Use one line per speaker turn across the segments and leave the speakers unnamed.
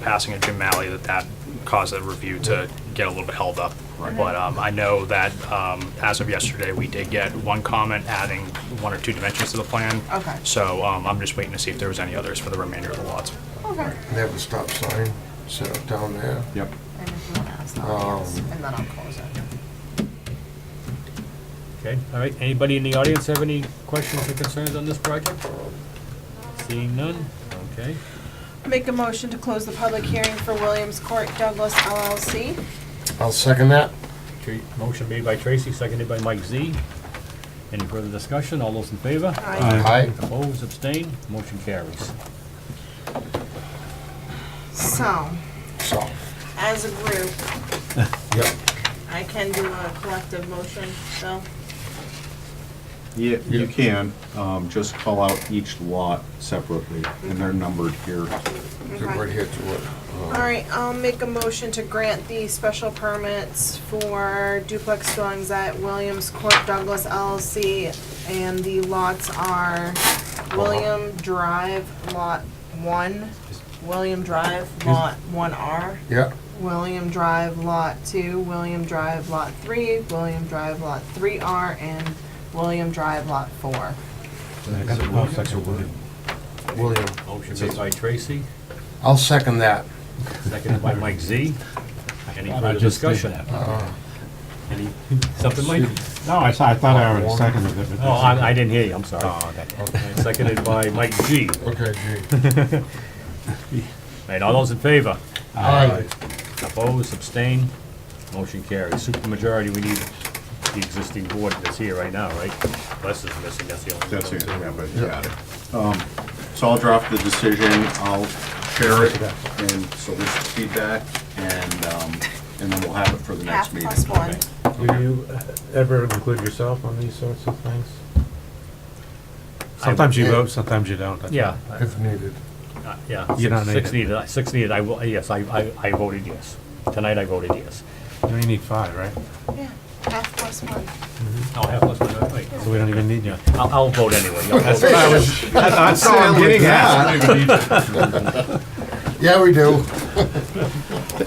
passing of Jim Malley that that caused the review to get a little bit held up. But um, I know that um, as of yesterday, we did get one comment adding one or two dimensions to the plan.
Okay.
So um, I'm just waiting to see if there was any others for the remainder of the lots.
Okay.
They have a stop sign set up down there.
Yep.
And if you want to ask that, yes,
Um,
and then I'll close it.
Okay, all right, anybody in the audience have any questions or concerns on this project? Seeing none, okay.
Make a motion to close the public hearing for Williams Court Douglas LLC.
I'll second that.
Tra- Motion made by Tracy, seconded by Mike Z. Any further discussion, all those in favor?
Aye.
Aye.
Opposed, abstained, motion carries.
So,
So,
As a group,
yep,
I can do a collective motion, so.
Yeah,
Yeah.
you can, um, just call out each lot separately, and they're numbered here.
they're right here to it.
All right, I'll make a motion to grant the special permits for duplex dwellings at Williams Court Douglas LLC. And the lots are William Drive Lot One, William Drive Lot One R,
Yep,
William Drive Lot Two, William Drive Lot Three, William Drive Lot Three R, and William Drive Lot Four.
William.
Motion made by Tracy,
I'll second that.
seconded by Mike Z. Any
Thought I
further
just did
discussion? Uh-huh. Any, something Mike?
No, I saw, I thought I already seconded it,
Oh,
but
I, I didn't hear you, I'm sorry.
Oh,
Seconded by Mike G.
Okay, gee.
Right, all those in favor?
Aye.
Opposed, abstained, motion carries. Supermajority, we need the existing board that's here right now, right? Les is missing, that's the only.
That's
one.
it, yeah, but you got it. Um, So I'll draft the decision, I'll share it and solicit feedback, and, um, and then we'll have it for the next
Half
meeting.
plus one.
Do you ever include yourself on these sorts of things?
I-
Sometimes you vote, sometimes you don't.
Yeah, I-
If needed.
uh, yeah.
You don't need
Six
it.
needed, uh, six needed, I, will- yes, I, I I voted yes. Tonight I voted yes.
You only need five, right?
Yeah, half plus one.
I'll have plus
uh,
one, wait,
So we don't even need you.
I'll, I'll vote anyway. I'll vote.
That's what I'm getting at.
Yeah, we do.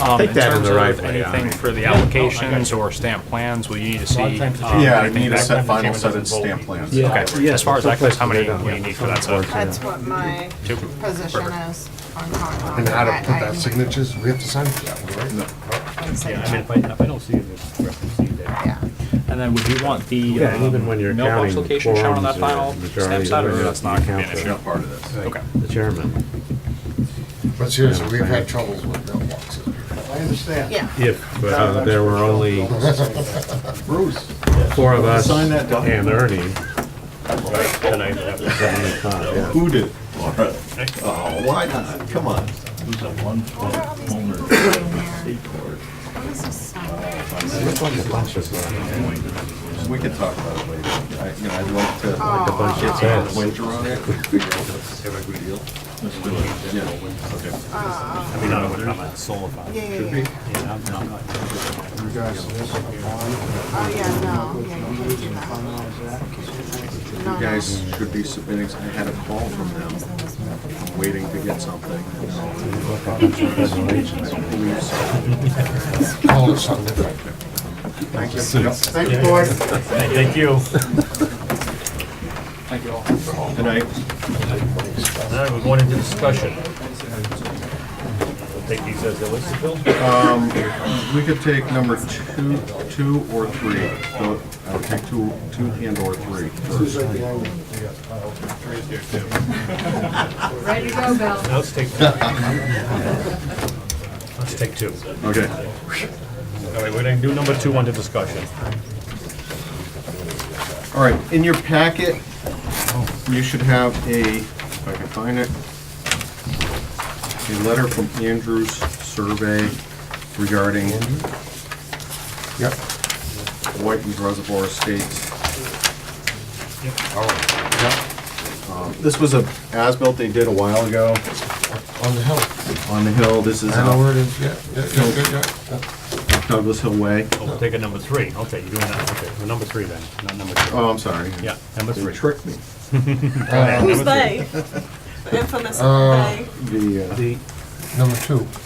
Um,
Take that in the right
In terms
way,
of
I
anything
mean.
for the applications or stamp plans, will Oh, you need to
A lot
see?
of times it's-
um,
Yeah, I
anything
need a
back?
set, final set
Chairman
of
doesn't vote.
stamp plans.
Yeah.
Okay, as far as that goes, how many
Yeah.
will you need for that? So
That's what my
two?
position is on Concom.
And how to put
I-
that
I-
signatures, we have to sign for that one, right?
I said
Yeah, I
that.
mean, if I, if I don't see it, it's referenced there.
Yeah.
And then would you want the
Yeah, even when you're
um, mailbox
counting
location shown on that
quorums or
final stamp
majority,
set, or
whatever,
that's not going to be an
count
issue?
that.
It's not part of this.
Okay.
The chairman.
But seriously, we've had troubles with mailboxes.
I understand.
Yeah.
If uh, there were only
Bruce,
four of us
Sign that document.
and Ernie,
Tonight, I have-
then we thought, yeah.
Who did? Laura. Oh, why not? Come on.
who's a
What are
one-foot
all these
owner
people
of
doing here?
Seaport,
What is this sign?
We could talk about it later. I, you know, I'd like to, like
Oh,
to
Bunch of heads.
wager on it. Figure out what's a good deal.
let's do it.
Yeah. Okay.
I mean, I don't know, I'm not solar farm.
Yeah, yeah, yeah.
Yeah, I'm not-
Oh, yeah, no, yeah, you can't do that. No, no.
You guys should be submitting, I had a call from them, waiting to get something. you know. I don't believe so.
Call it something different.
Thank you. Thank you,
Thank you.
Good night.
All right, we're going into discussion. We'll take these as they list, Bill.
We could take number two, two or three. So, I would take two, two and or three first.
Ready to go, Bill.
Now let's take. Let's take two.
Okay.
All right, we're gonna do number two under discussion.
All right, in your packet, you should have a, if I can find it, a letter from Andrew's survey regarding
Yep.
Whiten's Reservoir Estates.
Oh,
Um, This was a as-built they did a while ago
yep, on the hill.
on the hill. This is
I know
uh,
where it is, yeah, yeah, yeah, yeah, yeah.
Douglas Hill Way.
Oh, we'll take a number three. Okay, you're doing that. Okay, well, number three then, not number two.
Oh, I'm sorry.
Yeah, number
They
three.
tricked me.
Who's they? The infamous they?
The, uh,
The
Number two.